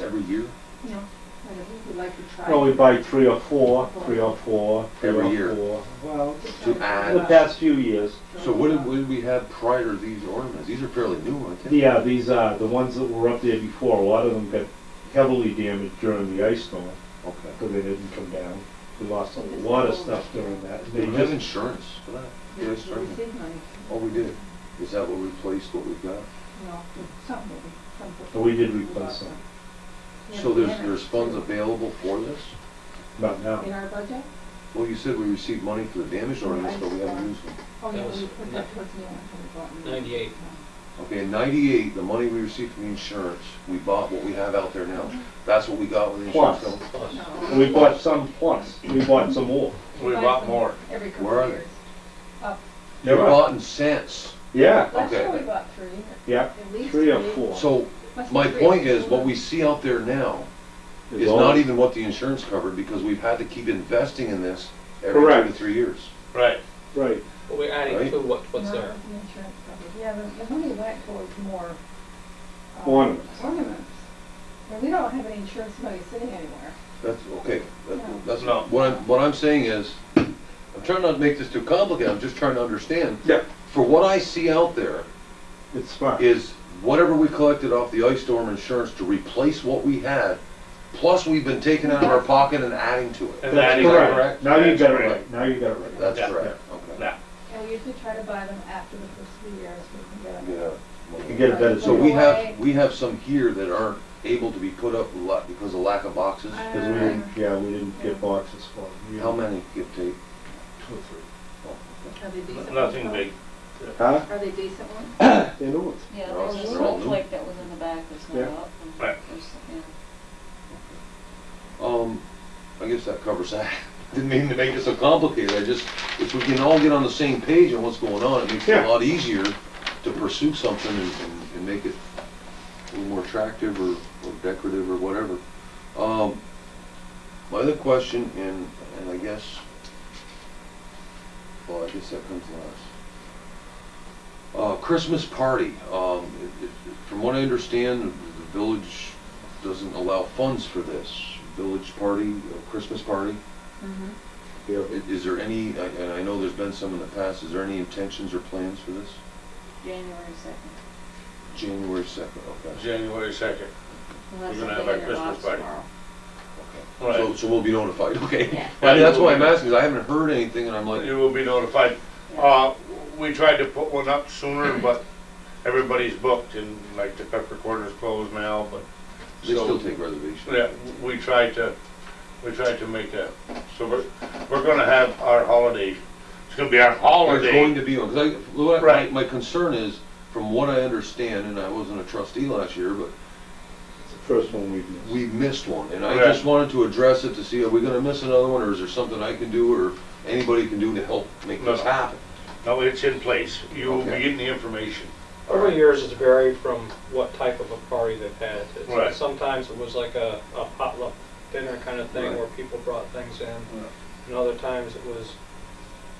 every year, No, I don't, we would like to try. No, we buy three or four, three or four, three Every or year. four. Well, to add. the past few years. So what did, what did we have prior to these ornaments? These are fairly new, I think. Yeah, these are the ones that were up there before. A lot of them got heavily damaged during the ice storm Okay. because they didn't come down. We lost a lot of stuff during that. Do They we have just, insurance for that? We Yeah, we it's starting. did money, Oh, we did. Is that what replaced what we've got? no, some maybe, some. Oh, we did replace some. Yeah, So we there's, had it. there's funds available for this? not now. In our budget? Well, you said we received money for the damaged ornaments, but we haven't used them. Oh, That yeah, was we put that towards the end when we bought new. 98. Okay, in ninety-eight, the money we received from the insurance, we bought what we have out there Mm-hmm. now. That's what we got with the insurance Plus. company? Plus, No. We bought some plus. We bought some more. We We buy bought them more. Every couple Where of are they? years. Up, We bought in cents. Yeah, last year Okay. we bought three, yeah. at least three. Three or four. So Must be my three. point is, what we see out there now is all- not even what the insurance covered because we've had to keep investing in this every two to Correct. three years. Right. Right. But we're Right. adding to what, what's No, there. the insurance coverage. Yeah, the, the money went towards more. um, Ornaments. Ornaments. And we don't have any insurance money sitting anywhere. That's, okay, that- that's, No. what I'm, what I'm saying is, I'm trying not to make this too complicated, I'm just trying to understand. Yeah. For what I see out there It's fine. is whatever we collected off the ice storm insurance to replace what we had, plus we've been taking out of our pocket and adding to it. And that That's is correct. correct. Now you That's got it correct. right. Now you got it right. That's Yeah. correct, okay. Now, And we usually try to buy them after the first three years, we can get them. Yeah. You get a better. So we have, we have some here that aren't able to be put up a lot because of lack of boxes. Because we didn't, yeah, we didn't get boxes for them. We How had many give take? Two or three. Are they decent? nothing ones, big. Huh? though? Are they decent ones? They knew it. Yeah, They're all- there's a they're all new. snowflake that was in the back that's Yeah. not up. and Right. there's- yeah. Um, I guess that covers that. Didn't mean to make it so complicated, I just, if we can all get on the same page on what's going on, it makes it Yeah. a lot easier to pursue something and, and- and make it a little more attractive or, or decorative or whatever. Um, my other question, and, and I guess, well, I guess that comes last. Uh, Christmas party, um, it- it- from what I understand, the the village doesn't allow funds for this. Village party, uh, Christmas party, Mm-hmm. Yeah. I- is there any, I- and I know there's been some in the past, is there any intentions or plans for this? January second. January second, okay. January second. Unless We're something gonna have our in it Christmas locks party. tomorrow. Okay. So, Right. so we'll be notified, okay? Yeah. I mean, that's why I'm asking, 'cause I haven't heard anything, and I'm like, You will be notified. Uh, we tried to put one up sooner, but everybody's booked and like the pepper quarter's closed now, but. they so- still take reservations. Yeah, we tried to, we tried to make that. So we're, we're gonna have our holiday. It's gonna be our They're going holiday. to be on, because I, what I- Right. my, my concern is, from what I understand, and I wasn't a trustee last year, but It's the first one we've missed. we missed one, and I Right. just wanted to address it to see, are we gonna miss another one, or is there something I can do, or anybody can do to help make this No. happen? No, it's in place. You will be Okay. getting the information. Over the years, it's varied from what type of a party they've had. It's- Right. Sometimes it was like a, a potluck dinner kind of thing Right. where people brought things in. And other times it was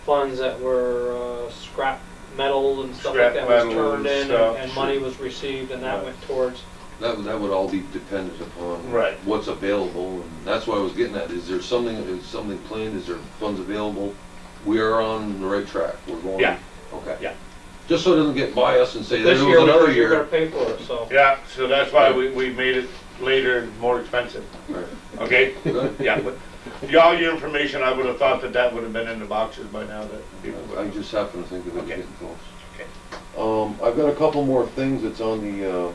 funds that were uh, scrap metal and stuff Scrap like that was metal and turned in stuff, and, and sure. money was received and that Right. went towards, That, would- that would all be dependent upon. Right. What's available, and that's what I was getting at, is there something, is something planned, is there funds available? We are on the right track, we're going. Yeah. Okay. Yeah. Just so it doesn't get by us and say, there this was year, we another were- you're gonna year. pay for it, so. Yeah, so that's why we, we made it later and more expensive, Right. okay? Good. Yeah, but all your information, I would have thought that that would have been in the boxes by now that people would I just happen to think of it Okay. getting close. Um, I've got a couple more things that's on the, uh,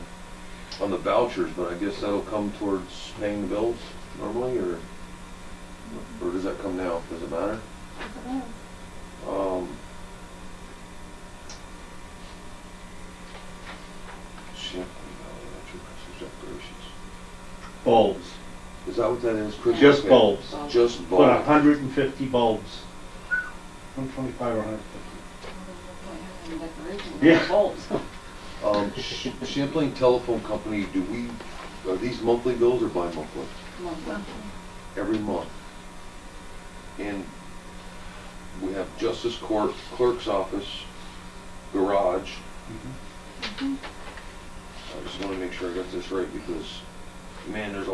on the vouchers, but I guess that'll come towards paying the bills normally, or, or does that come now? Does it matter? I don't know. Um, Champlain Valley Electric Christmas decorations. Bulbs. Is that what that is? Christmas Just cake? bulbs. Just Put a bulbs. hundred and fifty bulbs. One twenty-five or hundred fifty. And decorations and Yeah. bulbs. Um, Sh- Champlain Telephone Company, do we, are these monthly bills or bi-monthly? Monthly. Every month. And we have Justice Court, Clerk's Office, Mm-hmm. Garage. I just wanna make sure I got this right because man, there's a